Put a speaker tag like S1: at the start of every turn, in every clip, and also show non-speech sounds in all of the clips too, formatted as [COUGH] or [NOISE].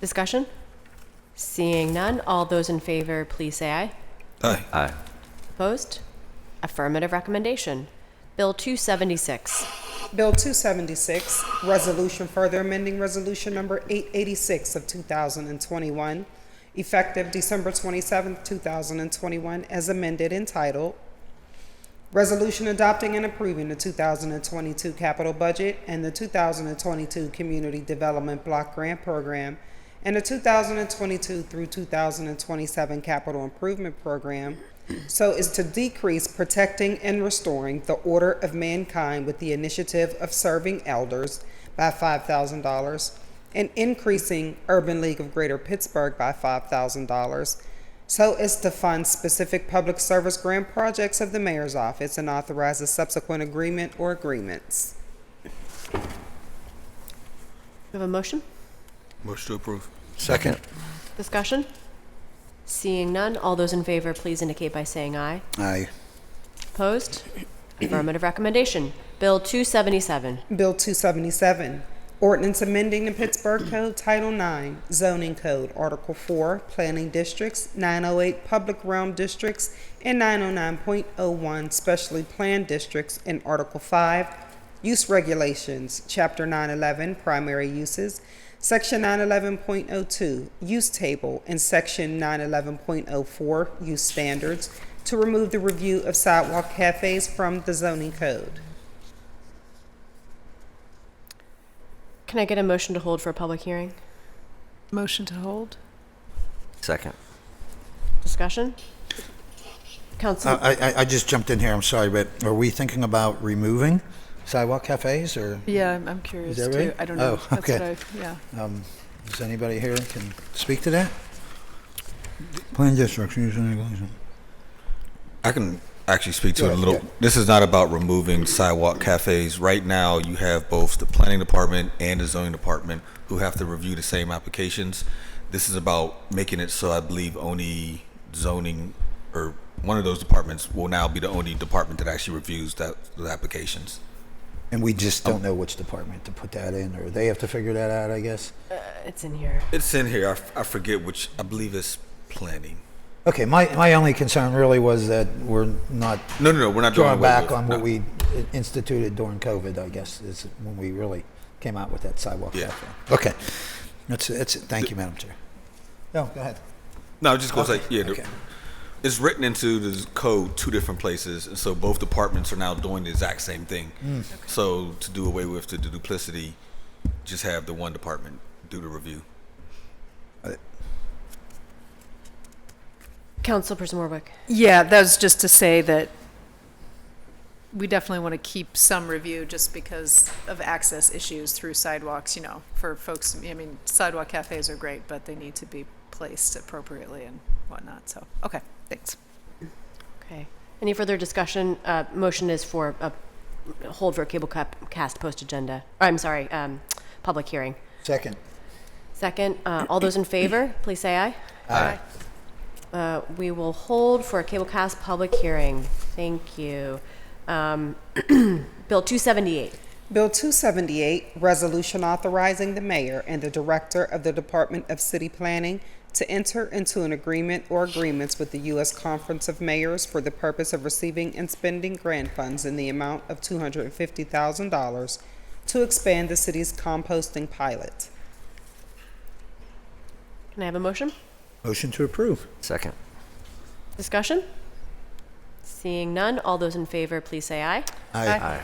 S1: Discussion? Seeing none, all those in favor, please say aye.
S2: Aye.
S3: Aye.
S1: Opposed? Affirmative recommendation. Bill 276.
S4: Bill 276, Resolution Further Amending Resolution Number 886 of 2021, effective December 27, 2021, as amended entitled, Resolution Adopting and Approving the 2022 Capital Budget and the 2022 Community Development Block Grant Program and the 2022 through 2027 Capital Improvement Program so as to decrease protecting and restoring the order of mankind with the initiative of serving elders by $5,000 and increasing Urban League of Greater Pittsburgh by $5,000 so as to fund specific public service grant projects of the mayor's office and authorize a subsequent agreement or agreements.
S1: We have a motion?
S2: Motion to approve.
S3: Second.
S1: Discussion? Seeing none, all those in favor, please indicate by saying aye.
S3: Aye.
S1: Opposed? Affirmative recommendation. Bill 277.
S4: Bill 277, ordinance amending the Pittsburgh Code Title 9, Zoning Code, Article 4, Planning Districts, 908 Public Realm Districts, and 909.01 Specially Planned Districts, and Article 5, Use Regulations, Chapter 911, Primary Uses, Section 911.02, Use Table, and Section 911.04, Use Standards, to remove the review of sidewalk cafes from the zoning code.
S1: Can I get a motion to hold for a public hearing?
S5: Motion to hold?
S3: Second.
S1: Discussion? Council,
S6: I, I, I just jumped in here, I'm sorry, but are we thinking about removing sidewalk cafes or
S5: Yeah, I'm, I'm curious
S6: that
S5: too.
S6: right?
S5: I don't know.
S6: Oh,
S5: That's what
S6: okay.
S5: I- Yeah.
S6: is anybody here can speak to that? Plan districts, use and regulation.
S2: I can actually speak to it a
S6: Yeah,
S2: little.
S6: yeah.
S2: This is not about removing sidewalk cafes. Right now, you have both the planning department and the zoning department who have to review the same applications. This is about making it so I believe only zoning or one of those departments will now be the only department that actually reviews that the applications.
S6: And we just don't
S2: Oh.
S6: know which department to put that in, or they have to figure that out, I guess.
S1: it's in here.
S2: It's in here. I, f- I forget which. I believe it's planning.
S6: Okay, my, my only concern really was that we're not
S2: No, no, no. We're not doing
S6: drawing
S2: away
S6: back
S2: with-
S6: on what
S2: no.
S6: we instituted during COVID, I guess, is when we really came out with that sidewalk
S2: Yeah.
S6: cafe. Okay, that's, that's, it. thank you, Madam Chair. No, go ahead.
S2: No, I was just gonna say, yeah, the-
S6: Okay.
S2: it's written into the code two different places, and so both departments are now doing the exact same thing. So to do away with the, duplicity, just have the one department do the review.
S1: Councilperson Warwick.
S5: Yeah, that was just to say that we definitely want to keep some review just because of access issues through sidewalks, you know, for folks. I mean, sidewalk cafes are great, but they need to be placed appropriately and whatnot. So, okay, thanks.
S1: Okay. Any further discussion? Uh, Motion is for a hold for a cable cap- cast post-agenda. I'm sorry, um, public hearing.
S6: Second.
S1: Second, uh, all those in favor, please say aye.
S5: Aye.
S1: Uh, We will hold for a cable cast public hearing. Thank you. Um, [CLEARS THROAT] Bill 278.
S4: Bill 278, Resolution Authorizing the Mayor and the Director of the Department of City Planning to enter into an agreement or agreements with the U.S. Conference of Mayors for the purpose of receiving and spending grant funds in the amount of $250,000 to expand the city's composting pilot.
S1: Can I have a motion?
S6: Motion to approve.
S3: Second.
S1: Discussion? Seeing none, all those in favor, please say aye.
S6: Aye.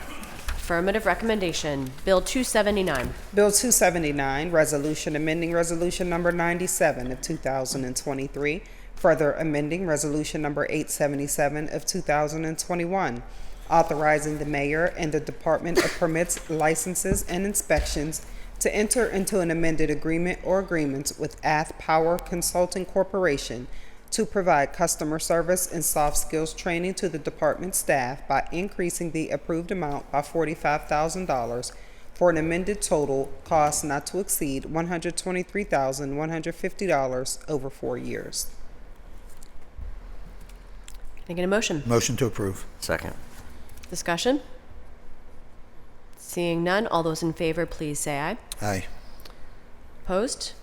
S1: Affirmative recommendation. Bill 279.
S4: Bill 279, Resolution Amending Resolution Number 97 of 2023, further amending Resolution Number 877 of 2021, authorizing the mayor and the Department of Permits, Licenses, and Inspections to enter into an amended agreement or agreements with Ath Power Consulting Corporation to provide customer service and soft skills training to the department staff by increasing the approved amount by $45,000 for an amended total cost not to exceed $123,150 over four years.
S1: Can I get a motion?
S6: Motion to approve.
S3: Second.
S1: Discussion? Seeing none, all those in favor, please say aye.
S6: Aye.
S1: Opposed?